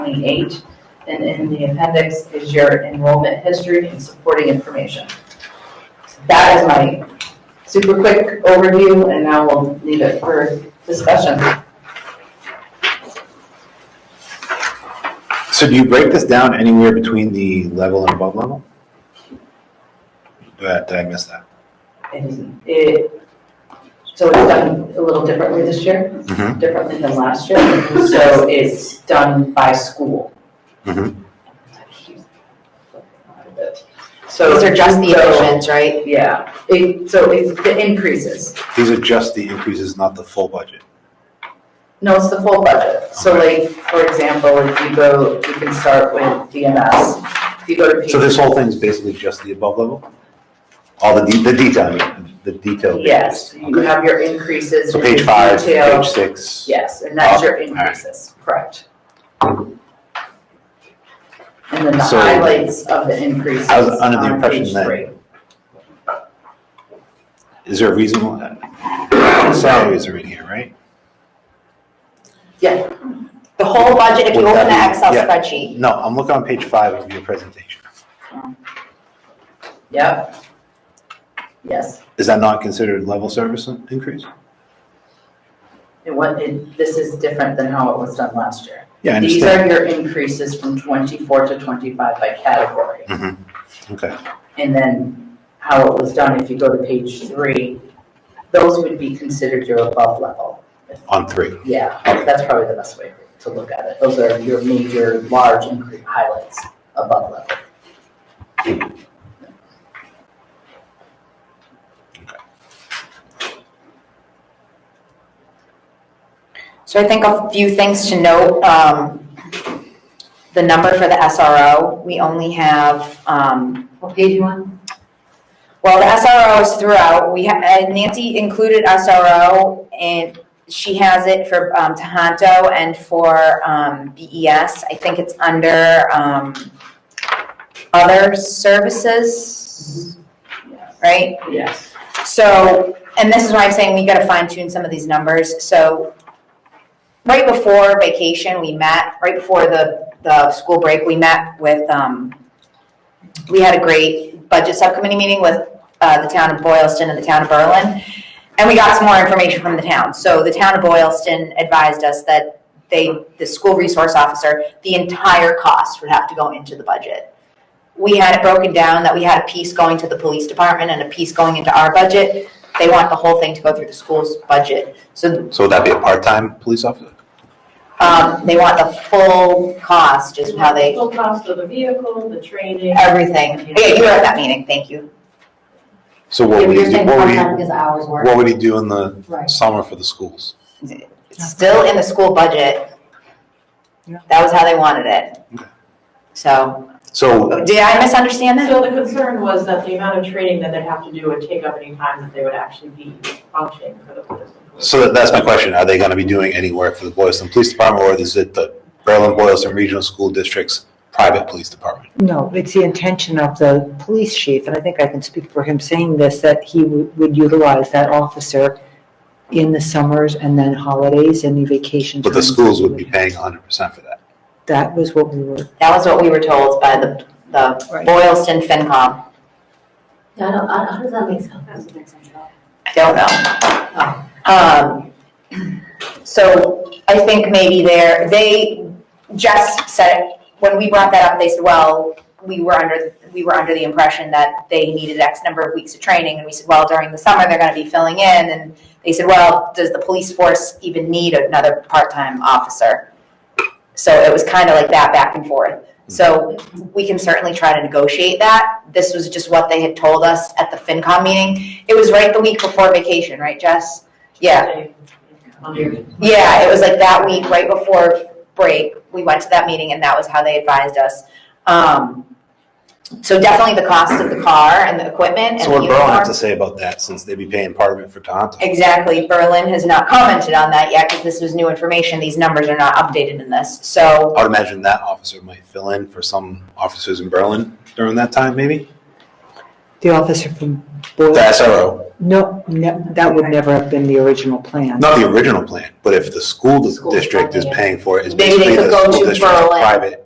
28, and in the appendix is your enrollment history and supporting information. That is my super quick overview, and now we'll leave it for discussion. So do you break this down anywhere between the level and above level? Did I- did I miss that? It isn't- it- So it's done a little differently this year, Mhm. differently than last year, so it's done by school. Mhm. So. These are just the so- additions, right? Yeah, it, so it's the increases. These are just the increases, not the full budget. No, it's the full budget. So like, for example, if you go, you can start with DMS. If you go to So this page, whole thing is basically just the above level? All the, de- the detail, the detail. pages. yes, you Okay. have your increases. So and your page five, detail. page six. Yes, and that's your Up, all right. increases, correct. And then the So- highlights of the increases I was under the on impression page that- three. Is there a reason why? Salaries are in here, right? Yeah, The whole budget, if you Would that open the be- Excel yeah. spreadsheet, No, I'm looking on page five of your presentation. yep. Yes, Is that not considered level service increase? it wa- it this is different than how it was done last year. Yeah, I These understand. are your increases from twenty-four to twenty-five by category. Okay, And then how it was done, if you go to page three, those would be considered your above level. on three. Yeah, that's probably the best way to look at it. Those are your major, large increase highlights above level. so I think a few things to note, um, the number for the SRO, we only have, um, What page you on? well, the SRO is throughout, we, ha- uh, Nancy included SRO, and she has it for, um, Tohoto and for, um, BES, I think it's under, um, other services, right? Yes. So, and this is why I'm saying we gotta fine tune some of these numbers, so right before vacation, we met, right before the, the school break, we met with, um, we had a great budget subcommittee meeting with, uh, the town of Boylston and the town of Berlin, and we got some more information from the town, so the town of Boylston advised us that they, the school resource officer, the entire cost would have to go into the budget we had it broken down that we had a piece going to the police department and a piece going into our budget. They want the whole thing to go through the school's budget. So So would that be a part-time police officer? um, they want the full cost, is how they, Full cost of the vehicle, the training. everything. Yeah, you were at that meeting, thank you. So what Yeah, would but he you're do, saying what would he, part-time because the hours work. what would he do in the Right. summer for the schools? It's still in the school budget. That was how they wanted it. Okay. So, So, did I misunderstand that? So the concern was that the amount of training that they'd have to do would take up any time that they would actually be functioning for the police. so that- that's my question, are they gonna be doing any work for the Boylston Police Department, or is it the Berlin Boylston Regional School District's private police department? No, it's the intention of the police chief, and I think I can speak for him saying this, that he would would utilize that officer in the summers and then holidays and the vacation. But the times that schools we would be have. paying hundred percent for that. That was what we were, That was what we were told by the, the Right. Boylston FinCom. Yeah, I don't, I don't- how does that make sense? Doesn't make sense at all. I don't know. Um, so I think maybe there, they just said, when we brought that up, they said, well, we were under, we were under the impression that they needed X number of weeks of training, and we said, well, during the summer, they're gonna be filling in, and they said, well, does the police force even need another part-time officer? So it was kind of like that back and forth. So we can certainly try to negotiate that. This was just what they had told us at the FinCom meeting. It was right the week before vacation, right, Jess? Yeah. Monday. Yeah, it was like that week, right before break, we went to that meeting and that was how they advised us. Um, so definitely the cost of the car and the equipment and So the what Berlin have uniform. to say about that, since they'd be paying part of it for Tohoto? Exactly, Berlin has not commented on that yet because this was new information, these numbers are not updated in this, so, I would imagine that officer might fill in for some officers in Berlin during that time, maybe? the officer from The Boylston, SRO, No, no, that would never have been the original plan. Not the original plan, but if the school School's district is funding it. paying for it, it's Maybe they basically could the go school to district's Berlin. private